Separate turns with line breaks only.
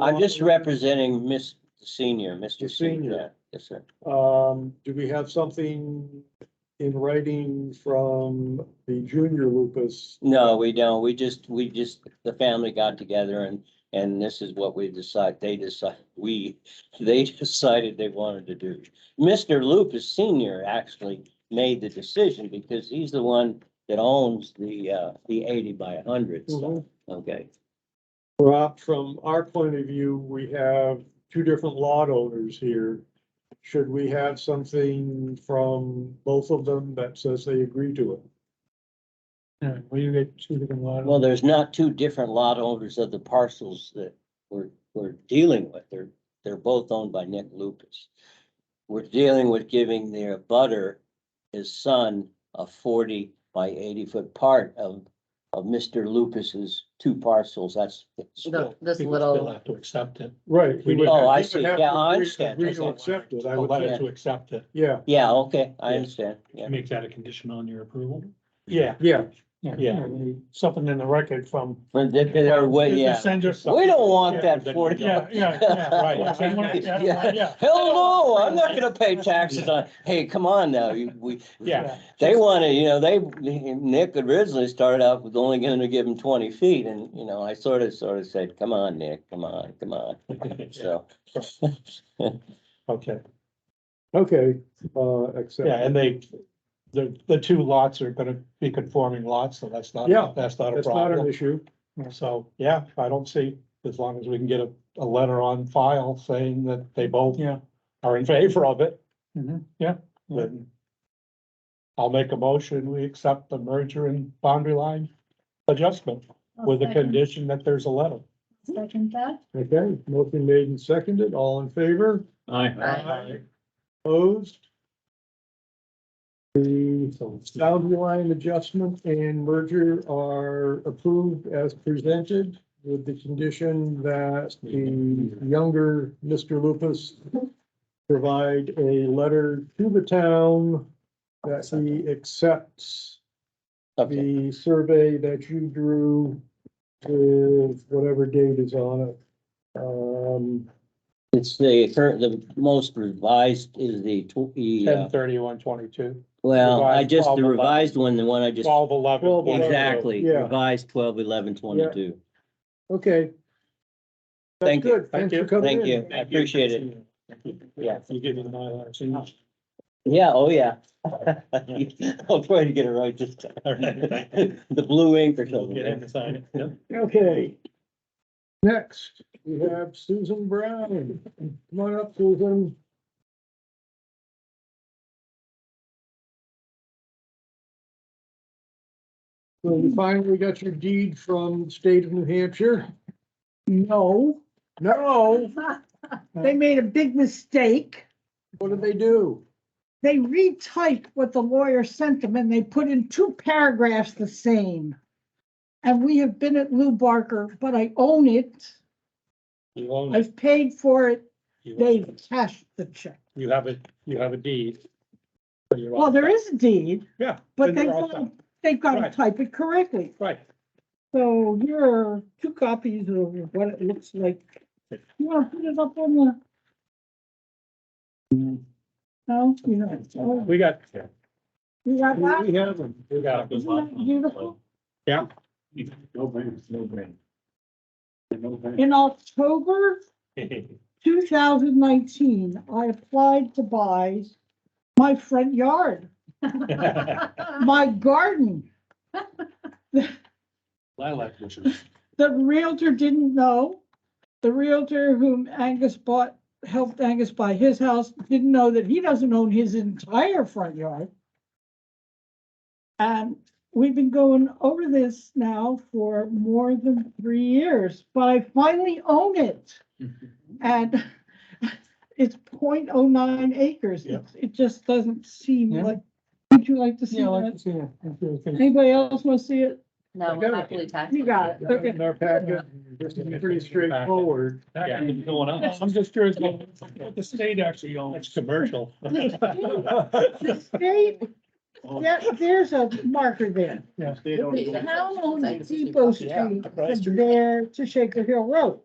I'm just representing Miss Senior, Mr.
The
Senior.
senior.
Yeah, Yes, sir.
Um, do we have something in writing from the junior lupus?
No, we don't. We just, we just, the family got together and, and this is what we decide, they decide, we, they decided they wanted to do. Mr. Lupus Senior actually made the decision because he's the one that owns the, uh, the eighty by hundred stuff.
Mhm.
Okay,
Rob, from our point of view, we have two different lot owners here. Should we have something from both of them that says they agree to it?
Yeah, well, you get two different lot.
well, there's not two different lot owners of the parcels that we're, we're dealing with. They're, they're both owned by Nick Lupus. We're dealing with giving their butter, his son, a forty by eighty foot part of, of Mr. Lupus's two parcels. That's. it's-
The- This
People still
little,
have to accept it.
Right. we would-
Oh, I
we would
see.
have
Yeah,
to
I
agree-
understand.
Agree
That's
to
all.
accept it, I
A
would
letter
think.
to accept it.
Yeah,
Yeah, okay, I
Yeah.
understand. Yeah,
Make that a condition on your approval. Yeah,
yeah.
yeah.
Something in the record from.
But they- they're way- yeah.
Send us.
We don't want
Yeah,
that forty.
Yeah, yeah, yeah, right. They want it,
Yeah.
yeah, yeah,
Hell no, I'm not gonna pay taxes on, hey, come on now, you, we,
yeah.
they wanted, you know, they, Nick originally started out with only gonna give him twenty feet and, you know, I sort of, sort of said, come on, Nick, come on, come on, so.
Okay,
Okay, uh, accept.
yeah, and they, the, the two lots are gonna be conforming lots, so that's not,
Yeah,
that's not a
That's not an
problem.
issue.
So, yeah, I don't see, as long as we can get a, a letter on file saying that they both
Yeah.
are in favor of it,
Yeah,
then I'll make a motion, we accept the merger and boundary line adjustment with the condition that there's a letter.
Second that.
Okay, motion made and seconded, all in favor,
Aye.
opposed? The boundary line adjustment and merger are approved as presented with the condition that the younger Mr. Lupus provide a letter to the town that he accepts
Okay,
the survey that you drew with whatever date is on it. Um,
it's the current, the most revised is the, tw- the, uh,
Ten thirty-one twenty-two,
well, I
revised
just, the
12,
revised one, the one I just,
twelve eleven.
12-11.
exactly,
Yeah.
revised twelve, eleven, twenty-two.
okay. That's
Thank you.
good. Thanks for coming
Thank
in.
you, I appreciate it. Yeah.
You give me the Mylar, so you-
Yeah, oh, yeah. I'll try to get it right this time. The blue ink or
you'll get in
something.
and sign it. Yep.
Okay. Next, we have Susan Brown. Come on up, Susan. So you finally got your deed from the state of New Hampshire?
no,
No,
they made a big mistake.
what did they do?
They retyped what the lawyer sent them and they put in two paragraphs the same. And we have been at Lou Barker, but I own it.
You own it.
I've paid for it.
Hmm. You own
They've
it.
cashed the check.
You have a, you have a deed. So you're all
Well, there
set.
is a deed,
Yeah.
but
then
they've
you're all
got,
set.
they've got to
Right.
type it correctly.
Right.
So here are two copies of what it looks like. You want to put it up on the? No, you know, oh,
We got,
you got
We
that?
have them.
we got.
Isn't that beautiful?
Yeah.
No brains, no brain. No brain.
In October two thousand nineteen, I applied to buy my front yard, my garden.
Lilac bushes.
The realtor didn't know. The realtor whom Angus bought, helped Angus buy his house, didn't know that he doesn't own his entire front yard. And we've been going over this now for more than three years, but I finally own it. And it's 0.09 acres.
Yeah.
It's- It just doesn't seem
Yeah.
like, would you like to see
Yeah, I like
that?
to see that. I feel good.
Anybody else want to see it?
I
No,
got
we're
it.
happily taxed.
You got it, okay.
In our packet, this is pretty straightforward.
Yeah.
I'm
I'm just curious what what the state actually owns. It's commercial.
The state, there- there's a marker there.
How long
Depot Street from there to Shaker Hill Road.